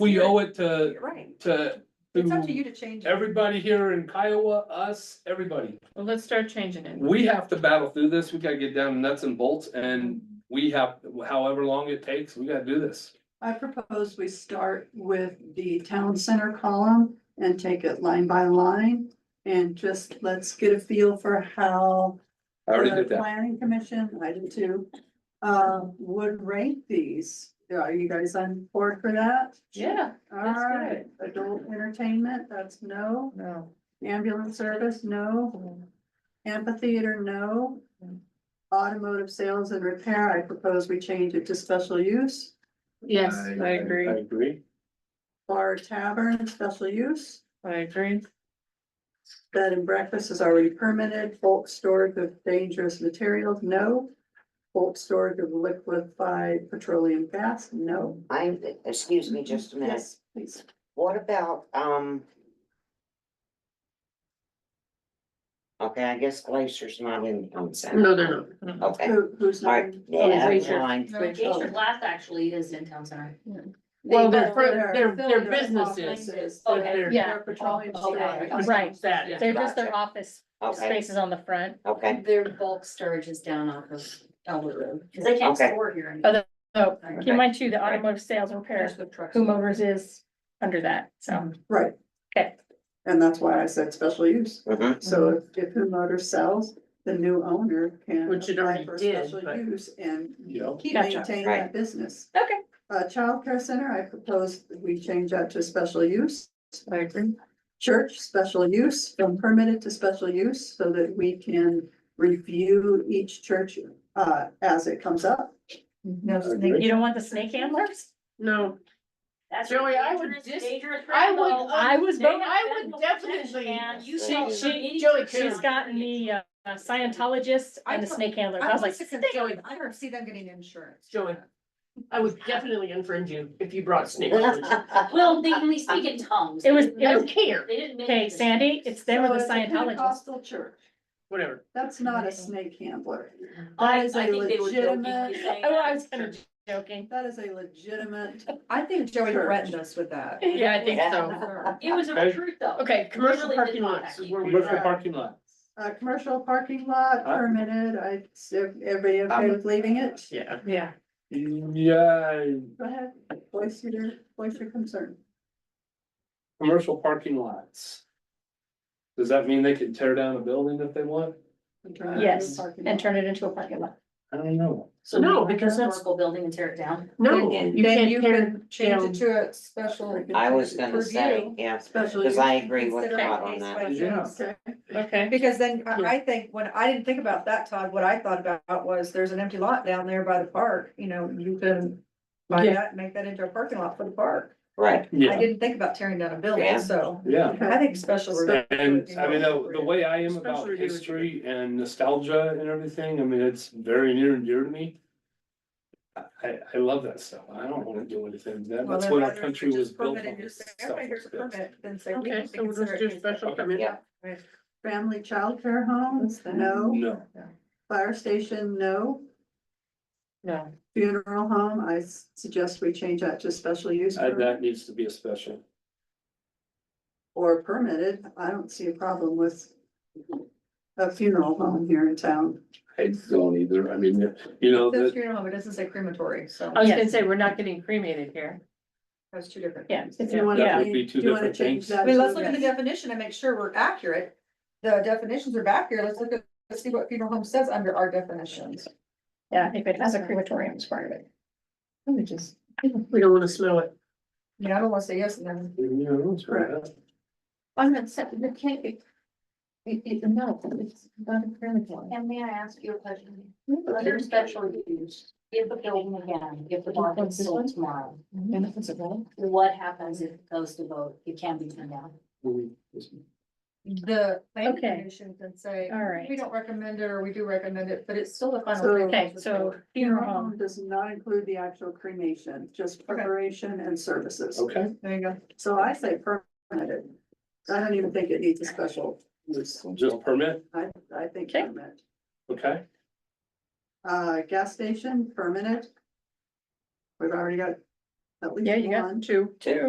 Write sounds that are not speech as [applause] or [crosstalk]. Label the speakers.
Speaker 1: we owe it to,
Speaker 2: You're Right,
Speaker 1: to,
Speaker 2: it's up to
Speaker 1: to
Speaker 2: you to change. it.
Speaker 1: everybody here in Kiowa, us, everybody.
Speaker 3: Well, let's start changing it.
Speaker 1: We have to battle through this, we gotta get down nuts and bolts, and we have, however long it takes, we gotta do this.
Speaker 4: I propose we start with the town center column and take it line by line. And just let's get a feel for how.
Speaker 1: I already
Speaker 4: the
Speaker 1: did that.
Speaker 4: Planning commission, I did too, uh, would rate these. Are you guys on board for that?
Speaker 3: Yeah, That's good.
Speaker 4: Alright, adult entertainment, that's no.
Speaker 3: no.
Speaker 4: Ambulance service, no. Amphitheater, no.
Speaker 2: Mm.
Speaker 4: Automotive sales and repair, I propose we change it to special use.
Speaker 3: Yes, I
Speaker 1: I
Speaker 3: agree,
Speaker 1: agree.
Speaker 4: Bar tavern, special use,
Speaker 3: I agree.
Speaker 4: bed and breakfast is already permitted, bulk storage of dangerous materials, no. Bulk storage of liquefied petroleum gas, no.
Speaker 5: I, excuse me just a minute,
Speaker 4: Yes, please.
Speaker 5: what about, um. Okay, I guess Glacier's not in the consent.
Speaker 3: No, no, no.
Speaker 5: Okay,
Speaker 4: Who, who's not?
Speaker 5: alright, yeah,
Speaker 3: Glacier.
Speaker 5: never mind.
Speaker 6: No, Glacier Glass actually is in town center.
Speaker 3: Well,
Speaker 4: They-
Speaker 3: they're, fir- they're, they're businesses. Oh.
Speaker 4: offices,
Speaker 3: but
Speaker 6: Oh, Okay.
Speaker 3: they're-
Speaker 6: Yeah.
Speaker 4: Their petroleum.
Speaker 6: Oh, okay.
Speaker 4: storage.
Speaker 6: Right.
Speaker 3: That,
Speaker 6: They're just their
Speaker 5: Gotcha.
Speaker 6: office
Speaker 5: Okay,
Speaker 6: spaces on the front.
Speaker 5: okay,
Speaker 6: Their bulk storage is down off of Elwood Road, because they can't
Speaker 5: Okay.
Speaker 6: store here.
Speaker 3: Oh,
Speaker 6: anymore.
Speaker 3: Oh,
Speaker 6: Right.
Speaker 3: keep in mind too, the automotive sales and repair,
Speaker 6: There's the trucks.
Speaker 3: whomever's is under that, so.
Speaker 4: Right.
Speaker 3: Okay.
Speaker 4: And that's why I said special use.
Speaker 5: mhm,
Speaker 4: So if if Who Motors sells, the new owner can.
Speaker 3: Which it
Speaker 4: apply
Speaker 3: already
Speaker 4: for
Speaker 3: did,
Speaker 4: special
Speaker 3: but-
Speaker 4: Use and
Speaker 1: Yeah.
Speaker 4: keep
Speaker 3: Gotcha.
Speaker 4: maintaining
Speaker 5: Right.
Speaker 4: that business.
Speaker 3: Okay.
Speaker 4: Uh, childcare center, I propose we change that to special use.
Speaker 3: I agree.
Speaker 4: Church, special use, from permitted to special use, so that we can review each church, uh, as it comes up. Uh,
Speaker 3: No,
Speaker 6: You don't want the snake handlers?
Speaker 3: no,
Speaker 6: That's
Speaker 3: Joey, I would
Speaker 6: dangerous-
Speaker 3: dis-
Speaker 6: dangerous
Speaker 3: I would,
Speaker 6: rainbow.
Speaker 3: I was,
Speaker 6: They have
Speaker 3: I
Speaker 6: fentanyl
Speaker 3: would definitely.
Speaker 6: and you
Speaker 5: She-
Speaker 6: sell
Speaker 5: she-
Speaker 6: them.
Speaker 3: Joey,
Speaker 6: She's
Speaker 3: she's
Speaker 6: gotten the uh, Scientologist and the snake handlers. I was like, "Snake
Speaker 2: I don't see them getting insurance.
Speaker 3: Joey, I would definitely infringe you if you brought snake handlers.
Speaker 6: Well, they only speak in tongues.
Speaker 3: It was,
Speaker 6: They
Speaker 3: it was
Speaker 6: didn't-
Speaker 3: care,
Speaker 6: They didn't. make
Speaker 3: okay,
Speaker 6: it.
Speaker 3: Sandy, it's them or
Speaker 4: So
Speaker 3: the
Speaker 4: it's a
Speaker 3: Scientologist.
Speaker 4: Pentecostal church,
Speaker 3: Whatever.
Speaker 4: that's not a snake handler.
Speaker 6: I,
Speaker 4: That
Speaker 6: I
Speaker 4: is a
Speaker 6: think they were joking.
Speaker 4: legitimate- [laughs]
Speaker 6: saying
Speaker 3: Oh, I
Speaker 6: that.
Speaker 3: was kind of joking.
Speaker 4: That is a legitimate
Speaker 2: I think Joey
Speaker 4: Church.
Speaker 2: threatened us with that.
Speaker 3: Yeah, I think [laughs] so.
Speaker 5: Yeah.
Speaker 6: It was a
Speaker 1: Okay.
Speaker 6: recruit though.
Speaker 3: Okay, commercial
Speaker 6: Really did
Speaker 3: parking
Speaker 6: not
Speaker 3: lots
Speaker 6: have
Speaker 3: is where we
Speaker 1: Commercial
Speaker 4: are.
Speaker 1: parking lot.
Speaker 4: Uh, commercial parking lot
Speaker 5: Uh,
Speaker 1: Huh?
Speaker 4: permitted, I, if everybody okay
Speaker 1: Um,
Speaker 4: with leaving it,
Speaker 3: Yeah. Yeah.
Speaker 1: Yeah,
Speaker 4: go ahead, voice your, voice your concern.
Speaker 1: commercial parking lots. Does that mean they can tear down a building if they want?
Speaker 4: in terms of
Speaker 6: Yes,
Speaker 4: parking
Speaker 6: And
Speaker 4: lot.
Speaker 6: turn it into a parking lot.
Speaker 1: I don't know.
Speaker 6: So
Speaker 3: No,
Speaker 6: you buy a
Speaker 3: because that's-
Speaker 6: historical Building and tear it down.
Speaker 3: No,
Speaker 2: And
Speaker 3: you
Speaker 2: then
Speaker 3: can't
Speaker 2: you
Speaker 3: tear
Speaker 2: can Change
Speaker 3: down.
Speaker 2: it to a special.
Speaker 5: I was gonna say,
Speaker 2: review,
Speaker 5: yeah,
Speaker 4: Special.
Speaker 5: cause
Speaker 4: use.
Speaker 5: I agree with
Speaker 2: consider it
Speaker 5: Todd on
Speaker 2: case
Speaker 5: that.
Speaker 2: by
Speaker 1: Yeah.
Speaker 2: case.
Speaker 4: Okay,
Speaker 3: Okay.
Speaker 2: Because then I, I think, when, I didn't think about that, Todd, what I thought about was there's an empty lot down there by the park, you know, you can. Buy
Speaker 3: Yeah.
Speaker 2: that, and make that into a parking lot for the park.
Speaker 5: Right,
Speaker 2: I
Speaker 1: Yeah,
Speaker 2: didn't think about tearing down a building,
Speaker 5: Yeah.
Speaker 2: so
Speaker 1: yeah.
Speaker 2: I think special.
Speaker 4: Spe-
Speaker 1: And I mean, the, the way I am about
Speaker 3: Especially here.
Speaker 1: history and nostalgia and everything, I mean, it's very near and dear to me. I- I, I love that stuff. I don't wanna do anything. That,
Speaker 2: Well,
Speaker 1: that's
Speaker 2: then
Speaker 1: what our
Speaker 2: rather
Speaker 1: country
Speaker 2: just
Speaker 1: was built
Speaker 2: permit
Speaker 1: on.
Speaker 2: and just say,
Speaker 1: Stuff
Speaker 2: "Everybody, here's a
Speaker 1: was built.
Speaker 2: permit," Then say, we
Speaker 3: Okay,
Speaker 2: need to
Speaker 3: so we'll
Speaker 2: consider
Speaker 3: just
Speaker 2: it
Speaker 3: do
Speaker 2: case by
Speaker 3: special
Speaker 2: case.
Speaker 3: permit.
Speaker 5: yeah,
Speaker 4: Family childcare homes, no,
Speaker 1: No,
Speaker 4: fire station, no,
Speaker 3: No.
Speaker 4: funeral home, I s- suggest we change that to special use.
Speaker 1: I-
Speaker 4: permit
Speaker 1: that needs to be a special.
Speaker 4: Or permitted, I don't see a problem with a funeral home here in town.
Speaker 1: I don't either. I mean, you know,
Speaker 2: Says
Speaker 1: that,
Speaker 2: funeral home, it doesn't say crematory, so
Speaker 3: I was
Speaker 6: Yes.
Speaker 3: gonna say, we're not getting cremated here.
Speaker 2: that's two different.
Speaker 3: Yeah.
Speaker 2: things.
Speaker 4: If you wanna
Speaker 1: That would
Speaker 4: change-
Speaker 1: be two
Speaker 4: do you wanna
Speaker 1: different
Speaker 4: change
Speaker 1: things.
Speaker 4: that
Speaker 2: I mean,
Speaker 4: to-
Speaker 2: let's look at the definition and make sure we're accurate. The definitions are back here. Let's look at, let's see what funeral home says under our definitions.
Speaker 6: Yeah, if it has a crematorium as part of it.
Speaker 3: Let me just, we don't wanna smell it.
Speaker 2: I mean, I don't wanna say yes and then.
Speaker 1: you know, it's right.
Speaker 3: I'm not, it can't be. It, it, no, it's not a crematorium.
Speaker 6: And may I ask you a question? Under special use, if the building again, if the bond is sold tomorrow,
Speaker 3: And if it's a roll.
Speaker 6: what happens if it goes to vote? It can be turned down.
Speaker 2: The planning
Speaker 6: Okay.
Speaker 2: commission can say,
Speaker 6: All right.
Speaker 2: we don't recommend it, or we do recommend it, but it's still the final.
Speaker 4: So-
Speaker 2: thing.
Speaker 6: Okay, so
Speaker 4: Funeral
Speaker 6: funeral home.
Speaker 4: home does not include the actual cremation, just preparation and services.
Speaker 1: Okay.
Speaker 2: There you go.
Speaker 4: So I say permitted. I don't even think it needs a special use.
Speaker 1: Just permit,
Speaker 4: I, I think
Speaker 6: Okay.
Speaker 4: permit.
Speaker 1: okay?
Speaker 4: Uh, gas station, permitted. We've already got at least
Speaker 3: Yeah, you got
Speaker 4: one.
Speaker 3: two.
Speaker 5: two.